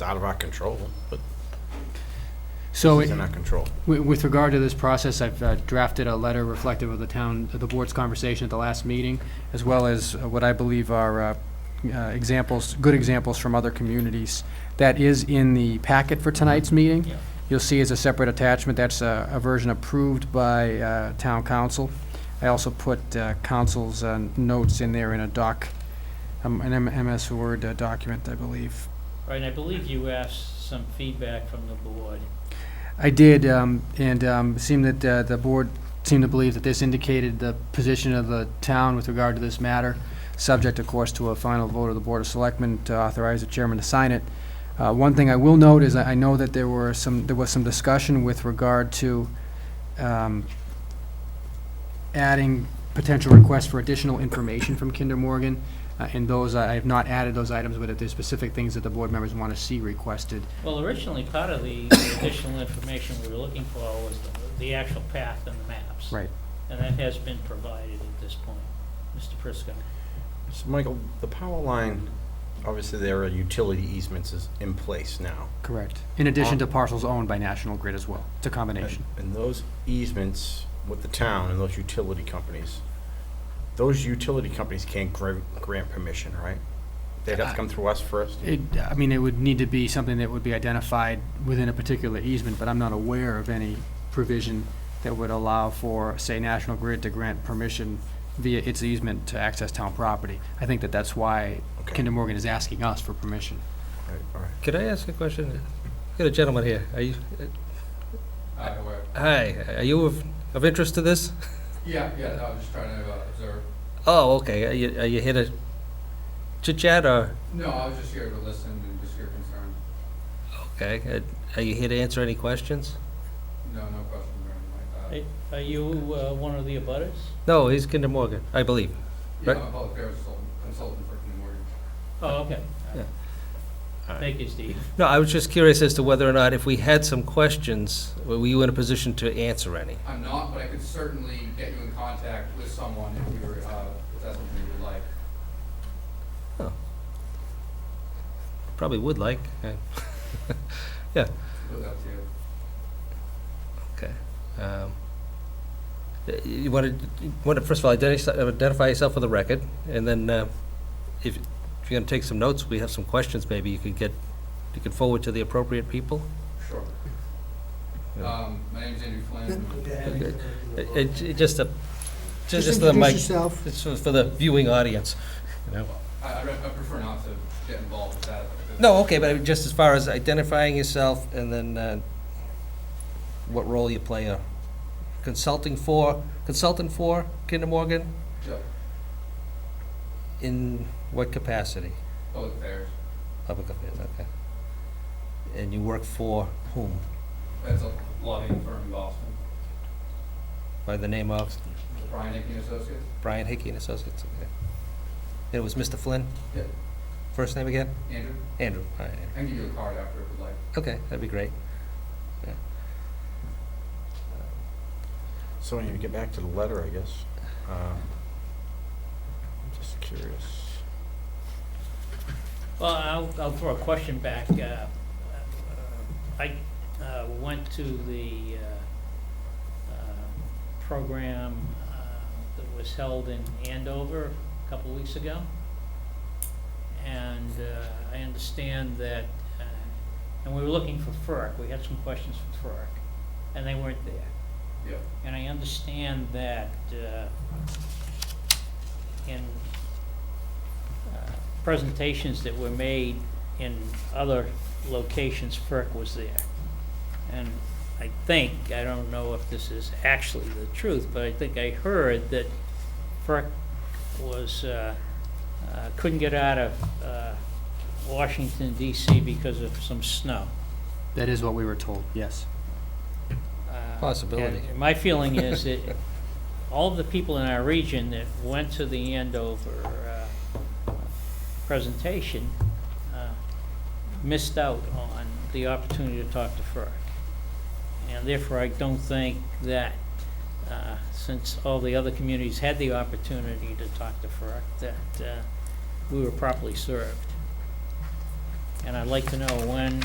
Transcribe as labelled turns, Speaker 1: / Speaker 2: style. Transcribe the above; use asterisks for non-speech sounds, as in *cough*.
Speaker 1: out of our control, but
Speaker 2: So
Speaker 1: it's
Speaker 2: it-
Speaker 1: in our control.
Speaker 2: wi- with regard to this process, I've uh, drafted a letter reflective of the town, the board's conversation at the last meeting, as well as uh, what I believe are uh, uh, examples, good examples from other communities. That is in the packet for tonight's meeting.
Speaker 3: Yeah.
Speaker 2: You'll see as a separate attachment, that's a a version approved by uh, town council. I also put uh, council's uh, notes in there in a doc, um, an M- MS Word uh, document, I believe.
Speaker 3: Right, and I believe you asked some feedback from the board.
Speaker 2: I did, um, and um, it seemed that uh, the board seemed to believe that this indicated the position of the town with regard to this matter, subject, of course, to a final vote of the Board of Selectmen to authorize the chairman to sign it. Uh, One thing I will note is I I know that there were some, there was some discussion with regard to um, adding potential requests for additional information from Kinder Morgan, uh, and those, I I have not added those items, but if there's specific things that the board members want to see requested,
Speaker 3: Well, originally, part of the additional information we were looking for was the- the actual path and the maps.
Speaker 2: Right.
Speaker 3: And that has been provided at this point, Mr. Prisco.
Speaker 1: So, Michael, the power line, obviously there are utility easements is in place now.
Speaker 2: Correct. In addition to parcels owned by National Grid as well. It's a combination.
Speaker 1: And those easements with the town and those utility companies, those utility companies can't grant, grant permission, right? They'd have to come through us first?
Speaker 2: It, I mean, it would need to be something that would be identified within a particular easement, but I'm not aware of any provision that would allow for, say, National Grid to grant permission via its easement to access town property. I think that that's why
Speaker 1: Okay.
Speaker 2: Kinder Morgan is asking us for permission.
Speaker 1: All right, all right.
Speaker 4: Could I ask a question? I've got a gentleman here. Are you, uh,
Speaker 5: Hi, where?
Speaker 4: hi, are you of, of interest to this?
Speaker 5: Yeah, yeah, no, I was just trying to uh, observe.
Speaker 4: Oh, okay. Are you, are you here to chit chat or,
Speaker 5: No, I was just here to listen and just hear concerns.
Speaker 4: okay, uh, are you here to answer any questions?
Speaker 5: No, no questions or anything like that.
Speaker 3: Are you uh, one of the abutters?
Speaker 4: No, he's Kinder Morgan, I believe.
Speaker 5: Yeah,
Speaker 4: right.
Speaker 5: I'm a public affairs consultant- consultant for Kinder Morgan.
Speaker 3: Oh, okay.
Speaker 4: Yeah. All right.
Speaker 3: Thank you, Steve.
Speaker 4: No, I was just curious as to whether or not if we had some questions, were you in a position to answer any?
Speaker 5: I'm not, but I could certainly get you in contact with someone if you were, uh, if that's something you would like.
Speaker 4: Probably would like. uh, Yeah,
Speaker 5: Put that to you.
Speaker 4: okay. Um, uh, You want to, want to, first of all, identi- identify yourself for the record, and then uh, if if you're going to take some notes, we have some questions maybe you could get, you could forward to the appropriate people.
Speaker 5: Sure.
Speaker 4: Yeah.
Speaker 5: Um, my name's Andrew Flynn.
Speaker 4: Okay. Uh, uh, j- Just a, just just for the mic,
Speaker 6: introduce yourself.
Speaker 4: just for for the viewing audience, you know.
Speaker 5: I, I re- I prefer not to get involved with that. because-
Speaker 4: No, okay, but I mean, just as far as identifying yourself and then uh, what role you play, uh, consulting for, consultant for Kinder Morgan,
Speaker 5: Yeah,
Speaker 4: in what capacity?
Speaker 5: Public affairs,
Speaker 4: Public affairs, okay. And you work for whom?
Speaker 5: that's a lobbying firm in Boston,
Speaker 4: By the name of
Speaker 5: Brian Hickey and Associates.
Speaker 4: Brian Hickey and Associates, okay. And it was Mr. Flynn,
Speaker 5: Yeah,
Speaker 4: first name again?
Speaker 5: Andrew?
Speaker 4: Andrew, all right, Andrew.
Speaker 5: I can give you a card after if you'd like.
Speaker 4: Okay, that'd be great.
Speaker 1: So when you get back to the letter, I guess, um, I'm just curious.
Speaker 3: Well, I'll, I'll throw a question back. Uh, uh, I uh, went to the uh, uh, program uh, that was held in Andover a couple weeks ago. And uh, I understand that, uh, and we were looking for FERC, we had some questions for FERC, and they weren't there.
Speaker 5: Yeah.
Speaker 3: And I understand that uh, in uh, presentations that were made in other locations, FERC was there. And I think, I don't know if this is actually the truth, but I think I heard that FERC was, uh, uh, couldn't get out of uh, Washington DC because of some snow.
Speaker 2: That is what we were told, yes.
Speaker 3: Uh,
Speaker 4: Possibility.
Speaker 3: and My feeling is that *laughs* all of the people in our region that went to the Andover uh, presentation uh, missed out on the opportunity to talk to FERC. And therefore, I don't think that, uh, since all the other communities had the opportunity to talk to FERC, that uh, we were properly served. And I'd like to know when